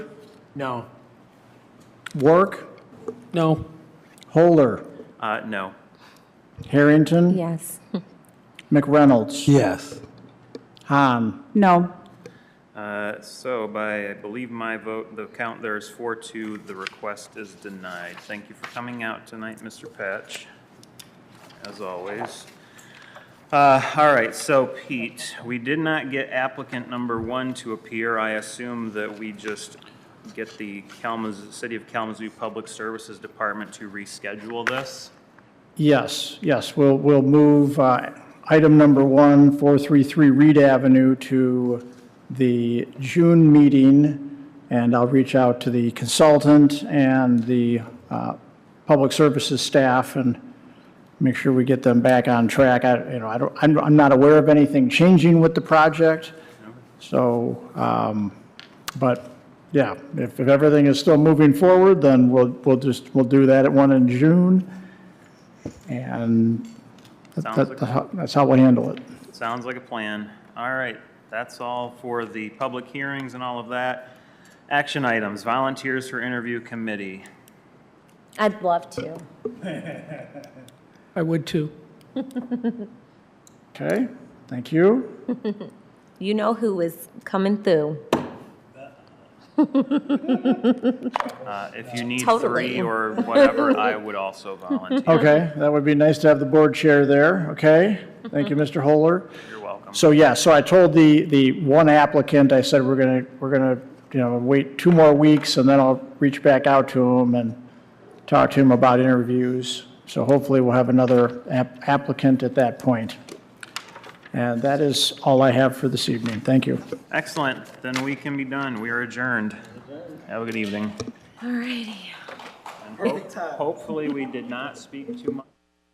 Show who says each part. Speaker 1: No.
Speaker 2: Work,
Speaker 1: No.
Speaker 2: Holder,
Speaker 3: Uh, no.
Speaker 2: Harrington,
Speaker 4: Yes.
Speaker 2: McReynolds,
Speaker 5: Yes.
Speaker 2: Hahn.
Speaker 4: No.
Speaker 3: Uh, So by, I believe my vote, the count there is four two, the request is denied. Thank you for coming out tonight, Mr. Patch, as always. Uh, All right, so Pete, we did not get applicant number one to appear. I assume that we just get the Kalamazoo, City of Kalamazoo Public Services Department to reschedule this?
Speaker 2: Yes, yes, we'll, we'll move uh, item number one, 433 Reed Avenue to the June meeting, and I'll reach out to the consultant and the uh, public services staff and make sure we get them back on track. I, you know, I don't, I'm, I'm not aware of anything changing with the project, so, um, but, yeah, if, if everything is still moving forward, then we'll, we'll just, we'll do that at one in June. And that-
Speaker 3: Sounds
Speaker 2: that-
Speaker 3: like-
Speaker 2: that's how- that's how we handle it.
Speaker 3: Sounds like a plan. All right, that's all for the public hearings and all of that. Action items, volunteers for interview committee.
Speaker 4: I'd love to.
Speaker 1: I would too.
Speaker 2: Okay, thank you.
Speaker 4: You know who is coming through.
Speaker 3: Uh, If you need
Speaker 4: Totally.
Speaker 3: three or whatever, I would also volunteer.
Speaker 2: Okay, that would be nice to have the board chair there, okay? Thank you, Mr. Holder.
Speaker 3: You're welcome.
Speaker 2: So, yeah, so I told the, the one applicant, I said, we're going to, we're going to, you know, wait two more weeks, and then I'll reach back out to him and talk to him about interviews. So hopefully we'll have another app- applicant at that point. And that is all I have for this evening. Thank you.
Speaker 3: Excellent, then we can be done. We are adjourned. Have a good evening.
Speaker 4: All righty.
Speaker 3: And ho- Hopefully, we did not speak too much.